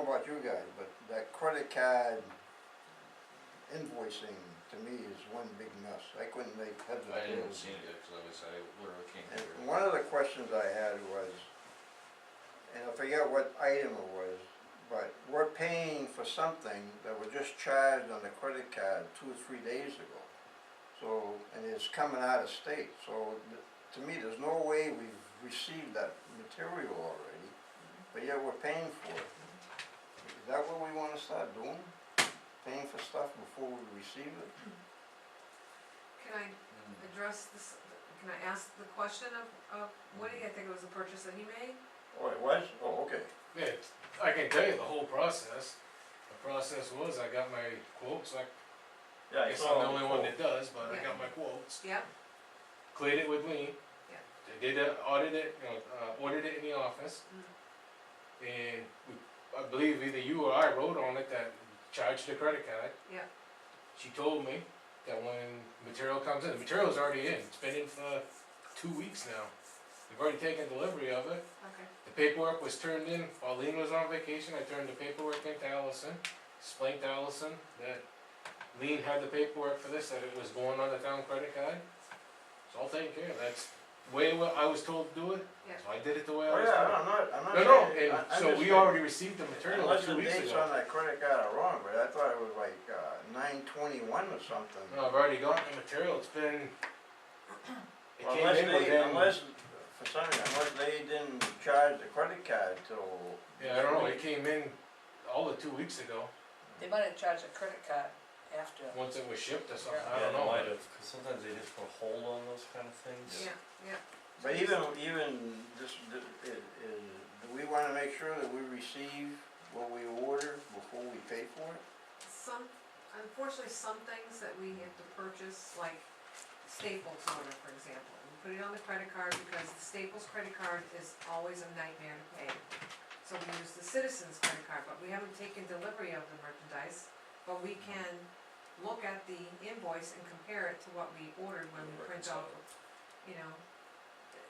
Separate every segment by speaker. Speaker 1: about you guys, but that credit card invoicing to me is one big mess. I couldn't make heads or
Speaker 2: I didn't
Speaker 1: tails.
Speaker 2: see it yet, cause I was, I literally came
Speaker 1: And
Speaker 2: here.
Speaker 1: one of the questions I had was, and I forget what item it was, but we're paying for something that was just charged on the credit card two or three days ago. So, and it's coming out of state, so th- to me, there's no way we've received that material already, but yet we're paying for it. Is that what we wanna start doing? Paying for stuff before we receive it?
Speaker 3: Can I
Speaker 2: Mm.
Speaker 3: address this, can I ask the question of, of Woody, I think it was a purchase that he made?
Speaker 1: Oh, it was? Oh, okay.
Speaker 4: Yeah, it's- I can tell you the whole process. The process was, I got my quotes, I
Speaker 1: Yeah,
Speaker 4: guess I'm the only one that does, but I
Speaker 3: Yeah.
Speaker 4: got my quotes.
Speaker 3: Yep,
Speaker 4: Cleared it with Lean.
Speaker 3: Yeah.
Speaker 4: They did a, audit it, you know, uh, ordered it in the office.
Speaker 3: Mm-hmm.
Speaker 4: And we, I believe either you or I wrote on it that charged the credit card.
Speaker 3: Yeah.
Speaker 4: She told me that when material comes in, the material's already in, it's been in for two weeks now. They've already taken delivery of it.
Speaker 3: okay,
Speaker 4: The paperwork was turned in while Lean was on vacation, I turned the paperwork in to Allison, explained to Allison that Lean had the paperwork for this, that it was going on the town credit card. It's all taken care of, that's the way wa- I was told to do it,
Speaker 3: yeah,
Speaker 4: so I did it the way I
Speaker 1: Oh,
Speaker 4: was
Speaker 1: yeah,
Speaker 4: told.
Speaker 1: I'm not, I'm not.
Speaker 4: No, no,
Speaker 1: saying-
Speaker 4: and
Speaker 1: I- I'm
Speaker 4: so
Speaker 1: just
Speaker 4: we
Speaker 1: saying-
Speaker 4: already received the material
Speaker 1: Unless
Speaker 4: two
Speaker 1: the
Speaker 4: weeks
Speaker 1: dates
Speaker 4: ago.
Speaker 1: on that credit card are wrong, but I thought it was like, uh, nine twenty-one or something.
Speaker 4: No, I've already gotten the material, it's been, it came
Speaker 1: Unless
Speaker 4: in
Speaker 1: they,
Speaker 4: within,
Speaker 1: unless, for some reason, unless they didn't charge the credit card till.
Speaker 4: yeah, I don't know, it came in all the two weeks ago,
Speaker 5: They might have charged a credit card after.
Speaker 4: once it was shipped or something,
Speaker 5: Yeah.
Speaker 4: I don't know.
Speaker 6: might have, cause sometimes they just put a hold on those kind of things.
Speaker 3: yeah, yeah.
Speaker 1: But even, even this, th- i- is, do we wanna make sure that we receive what we order before we pay for it?
Speaker 3: Some, unfortunately, some things that we have to purchase, like Staples order, for example, we put it on the credit card because the Staples credit card is always a nightmare to pay. So we use the Citizens credit card, but we haven't taken delivery of the merchandise, but we can look at the invoice and compare it to what we ordered when we print
Speaker 6: Reconcile
Speaker 3: out, you know.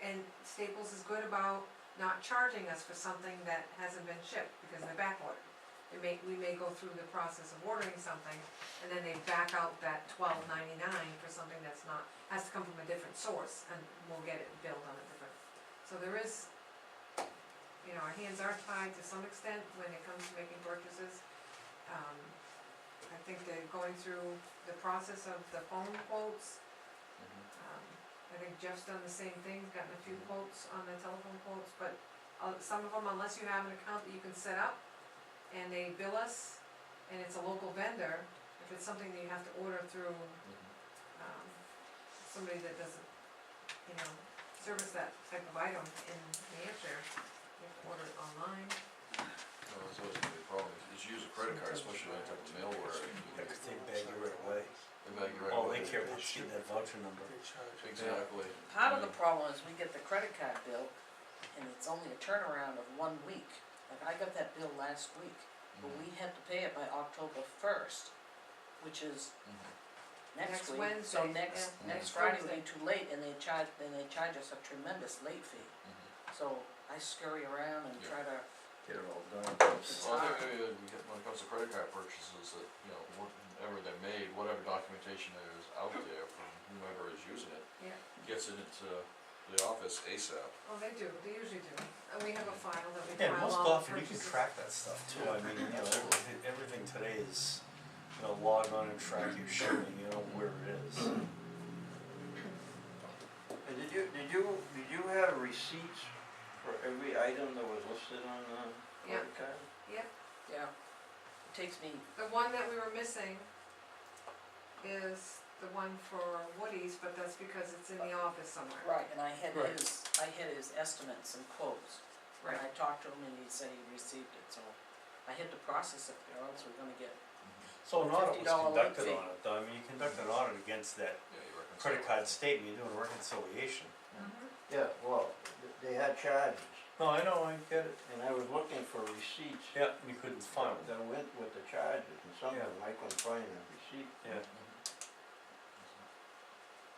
Speaker 3: And Staples is good about not charging us for something that hasn't been shipped because they're back ordered. It may, we may go through the process of ordering something, and then they back out that twelve ninety-nine for something that's not, has to come from a different source, and we'll get it billed on a different. So there is, you know, our hands are tied to some extent when it comes to making purchases. Um, I think they're going through the process of the phone quotes,
Speaker 6: Mm-hmm.
Speaker 3: um, I think Jeff's done the same thing, gotten a few quotes on the telephone quotes, but, uh, some of them, unless you have an account that you can set up, and they bill us, and it's a local vendor, if it's something that you have to order through, um, somebody that doesn't, you know, service that type of item in New Hampshire, you have to order it online.
Speaker 2: No, that's always gonna be a problem, if you use a credit card, especially that type of mail where you can,
Speaker 6: Cause they bag you right away.
Speaker 2: everybody can write.
Speaker 6: Oh,
Speaker 2: away.
Speaker 6: they care about getting that voucher number.
Speaker 2: Exactly.
Speaker 5: Part of the problem is we get the credit card bill, and it's only a turnaround of one week. Like, I got that bill last week, but
Speaker 2: Mhm,
Speaker 5: we had to pay it by October first, which is
Speaker 2: mhm.
Speaker 3: Next
Speaker 5: next week. So
Speaker 3: Wednesday,
Speaker 5: next,
Speaker 2: yeah,
Speaker 5: next
Speaker 3: next
Speaker 5: Friday would be
Speaker 3: Thursday.
Speaker 5: too late, and they charge, then they charge us a tremendous late fee. So I scurry around and
Speaker 2: Yeah.
Speaker 5: try to,
Speaker 6: Get it all done.
Speaker 5: it's
Speaker 2: Well, I
Speaker 5: hard.
Speaker 2: think maybe that we get- when it comes to credit card purchases, that, you know, whatever they're made, whatever documentation there is out there from whomever is using it.
Speaker 3: Yeah.
Speaker 2: Gets it into the office ASAP.
Speaker 3: Oh, they do, they usually do, and we have a file that we
Speaker 6: Yeah,
Speaker 3: file all
Speaker 6: most
Speaker 3: the
Speaker 6: often you can
Speaker 3: purchases.
Speaker 6: track that stuff too, I mean, you know, everything, everything today is, you know, log on and track your shipping, you know, where it is.
Speaker 1: And did you, did you, did you have receipts for every item that was listed on the
Speaker 3: Yeah.
Speaker 1: credit card?
Speaker 5: yeah, it takes me
Speaker 3: The one that we were missing is the one for Woody's, but that's because it's in the office somewhere.
Speaker 5: Right, and I had
Speaker 4: Right.
Speaker 5: his, I had his estimates and quotes. And I talked to him and he said he received it, so I had to process it, or else we're gonna get,
Speaker 6: So an audit was
Speaker 5: $50 late
Speaker 6: conducted
Speaker 5: fee.
Speaker 6: on it, though, I mean, you conduct an audit against that
Speaker 2: Yeah, you reconcile.
Speaker 6: credit card statement, you're doing reconciliation.
Speaker 3: Mhm.
Speaker 1: Yeah, well, they had charges,
Speaker 6: No, I know, I get it.
Speaker 1: and I was looking for receipts
Speaker 6: Yeah, and you couldn't find it,
Speaker 1: that went with the charges, and some of them I couldn't find a receipt.
Speaker 6: yeah.
Speaker 2: You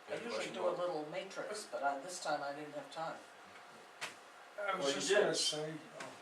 Speaker 5: Mm-hmm. I
Speaker 2: had a
Speaker 5: usually
Speaker 2: question,
Speaker 5: do
Speaker 2: Bob?
Speaker 5: a little matrix, but I, this time I didn't have time.
Speaker 7: I
Speaker 1: Well,
Speaker 7: was
Speaker 1: you
Speaker 7: just
Speaker 1: did.
Speaker 7: gonna say, um,